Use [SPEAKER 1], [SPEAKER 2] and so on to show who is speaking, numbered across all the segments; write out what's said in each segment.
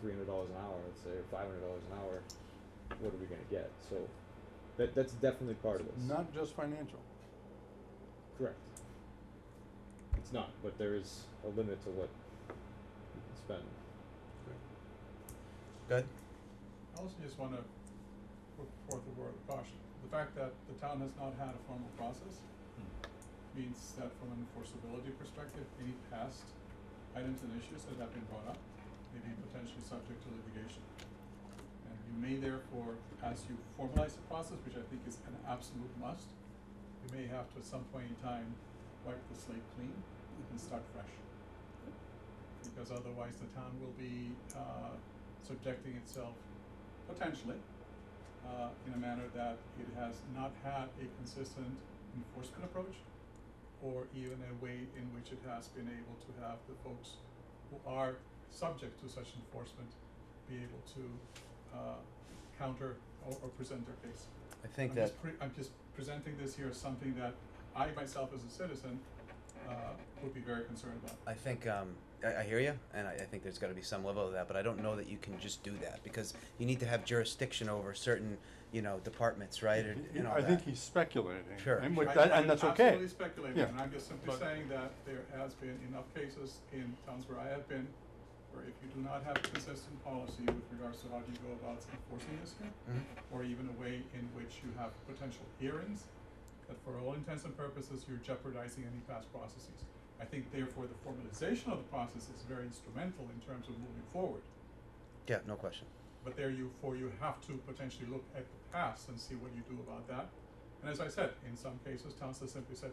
[SPEAKER 1] three hundred dollars an hour, let's say, or five hundred dollars an hour, what are we gonna get? So that that's definitely part of this.
[SPEAKER 2] Not just financial.
[SPEAKER 1] Correct. It's not, but there is a limit to what you can spend.
[SPEAKER 3] Good.
[SPEAKER 4] I also just wanna put forth a word of caution. The fact that the town has not had a formal process means that from an enforceability perspective, any past items and issues that have been brought up may be potentially subject to litigation. And you may therefore, as you formalize the process, which I think is an absolute must, you may have to at some point in time wipe the slate clean and start fresh. Because otherwise the town will be uh subjecting itself potentially uh in a manner that it has not had a consistent enforcement approach or even a way in which it has been able to have the folks who are subject to such enforcement be able to uh counter or or present their case.
[SPEAKER 3] I think
[SPEAKER 4] I'm
[SPEAKER 3] that,
[SPEAKER 4] just pre- I'm just presenting this here as something that I myself as a citizen, uh, would be very concerned about.
[SPEAKER 3] I think, um, I, I hear you, and I, I think there's gotta be some level of that, but I don't know that you can just do that, because you need to have jurisdiction over certain, you know, departments, right, and,
[SPEAKER 2] He-
[SPEAKER 3] and all
[SPEAKER 2] I think
[SPEAKER 3] that.
[SPEAKER 2] he's speculating.
[SPEAKER 3] Sure,
[SPEAKER 2] And with
[SPEAKER 4] I-
[SPEAKER 2] that,
[SPEAKER 4] I
[SPEAKER 2] and
[SPEAKER 4] would
[SPEAKER 2] that's okay.
[SPEAKER 4] Absolutely speculating,
[SPEAKER 2] Yeah.
[SPEAKER 4] and I'm just simply
[SPEAKER 2] But-
[SPEAKER 4] saying that there has been enough cases in towns where I have been, where if you do not have a consistent policy with regards to how do you go about enforcing this here,
[SPEAKER 3] Mhm.
[SPEAKER 4] or even a way in which you have potential hearings, that for all intents and purposes, you're jeopardizing any past processes. I think therefore the formalization of the process is very instrumental in terms of moving forward.
[SPEAKER 3] Yeah, no question.
[SPEAKER 4] But there you, for you have to potentially look at the past and see what you do about that. And as I said, in some cases, towns have simply said,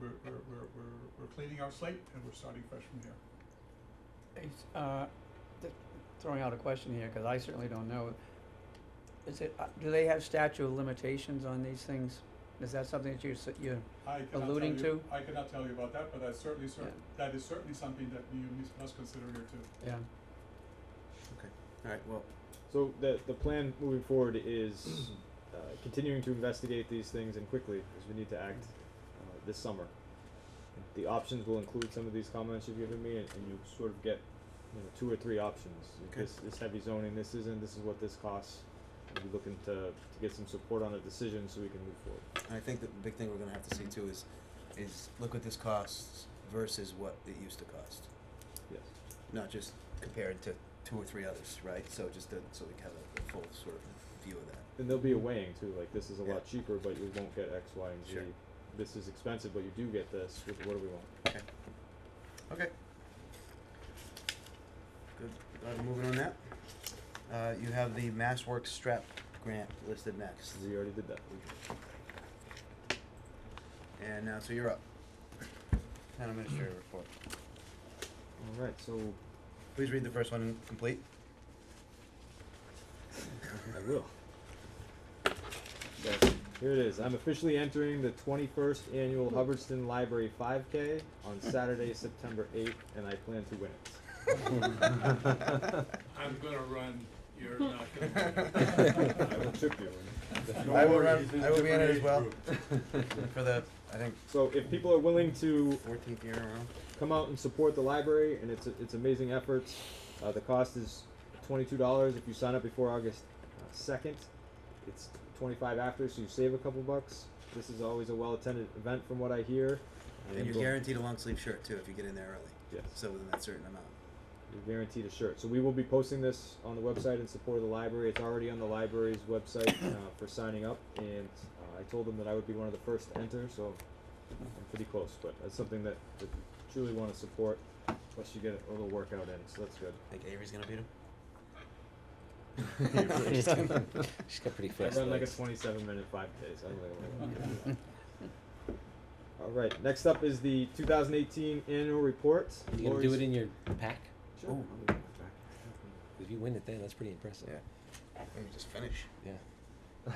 [SPEAKER 4] we're, we're, we're, we're, we're cleaning our slate and we're starting fresh from here.
[SPEAKER 5] It's, uh, th- throwing out a question here, cause I certainly don't know. Is it, uh, do they have statute of limitations on these things? Is that something that you, s- you,
[SPEAKER 4] I cannot tell
[SPEAKER 5] Alluding
[SPEAKER 4] you-
[SPEAKER 5] to?
[SPEAKER 4] I cannot tell you about that, but that's certainly cer- that is certainly something that you mis- must consider here too.
[SPEAKER 5] yeah,
[SPEAKER 3] Okay, alright, well,
[SPEAKER 1] So the the plan moving forward is uh, continuing to investigate these things and quickly because we need to act uh, this summer. The options will include some of these comments you've given me, and, and you sort of get you know two or three options. If
[SPEAKER 3] Okay.
[SPEAKER 1] This this heavy zoning, this isn't. This is what this costs. and We're looking to to get some support on a decision so we can move forward.
[SPEAKER 3] I think that the big thing we're gonna have to see too is, is look what this costs versus what it used to cost.
[SPEAKER 1] Yes.
[SPEAKER 3] not just compared to two or three others, right? So just to, so we have a, a full sort of view of that.
[SPEAKER 1] And there'll be a weighing too, like this is a
[SPEAKER 3] Yeah.
[SPEAKER 1] lot cheaper, but you won't get X, Y, and Z.
[SPEAKER 3] Sure.
[SPEAKER 1] This is expensive, but you do get this. What, what do we want?
[SPEAKER 3] Okay. Okay. Good. Uh, moving on that. Uh, you have the MassWorks strap grant listed next.
[SPEAKER 1] We already did that.
[SPEAKER 3] And now, so you're up. Town administrator report.
[SPEAKER 1] All right, so
[SPEAKER 3] Please read the first one and complete.
[SPEAKER 1] I will. Yes, Here it is. I'm officially entering the 21st annual Hubbardston Library 5K on Saturday, September 8th, and I plan to win it.
[SPEAKER 4] I'm gonna run, you're not
[SPEAKER 1] I will trip you.
[SPEAKER 3] I will
[SPEAKER 2] worry,
[SPEAKER 3] run,
[SPEAKER 2] he's in a
[SPEAKER 3] I will be in it
[SPEAKER 2] different
[SPEAKER 3] as
[SPEAKER 2] age
[SPEAKER 3] well.
[SPEAKER 2] group.
[SPEAKER 3] For the, I think,
[SPEAKER 1] So if people are willing to
[SPEAKER 3] fourteenth year in a row.
[SPEAKER 1] come out and support the library and its its amazing efforts. Uh, the cost is twenty two dollars if you sign up before August uh, second. It's twenty five after, so you save a couple bucks. This is always a well attended event, from what I hear.
[SPEAKER 3] And you're guaranteed a long sleeve shirt too if you get in there early.
[SPEAKER 1] Yes.
[SPEAKER 3] So within that certain amount.
[SPEAKER 1] You're guaranteed a shirt. So we will be posting this on the website in support of the library. It's already on the library's website uh, for signing up, and uh, I told them that I would be one of the first to enter, so I'm pretty close. But it's something that, that you truly want to support. Plus, you get a little workout in, so that's good.
[SPEAKER 3] Think Avery's gonna beat him?
[SPEAKER 6] She's got- she's got pretty
[SPEAKER 1] I
[SPEAKER 6] fast
[SPEAKER 1] run like a
[SPEAKER 6] legs.
[SPEAKER 1] 27 minute 5K, so I don't think I'm gonna do that. All right, next up is the 2018 annual report.
[SPEAKER 6] You gonna do
[SPEAKER 1] Lori's-
[SPEAKER 6] it in your pack?
[SPEAKER 1] Sure.
[SPEAKER 3] Ooh.
[SPEAKER 1] I'll do it.
[SPEAKER 6] If you win it then, that's pretty impressive.
[SPEAKER 3] Yeah. Maybe just finish.
[SPEAKER 6] Yeah.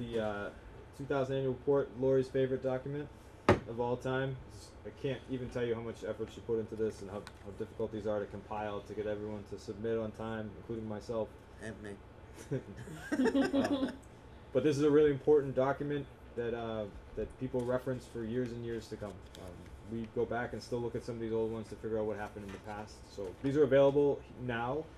[SPEAKER 1] the uh, 2000 annual report, Lori's favorite document of all time. I can't even tell you how much effort she put into this and how, how difficult these are to compile to get everyone to submit on time, including myself.
[SPEAKER 3] And me.
[SPEAKER 1] Uh, but this is a really important document that uh, that people reference for years and years to come. Um, we go back and still look at some of these old ones to figure out what happened in the past. So these are available now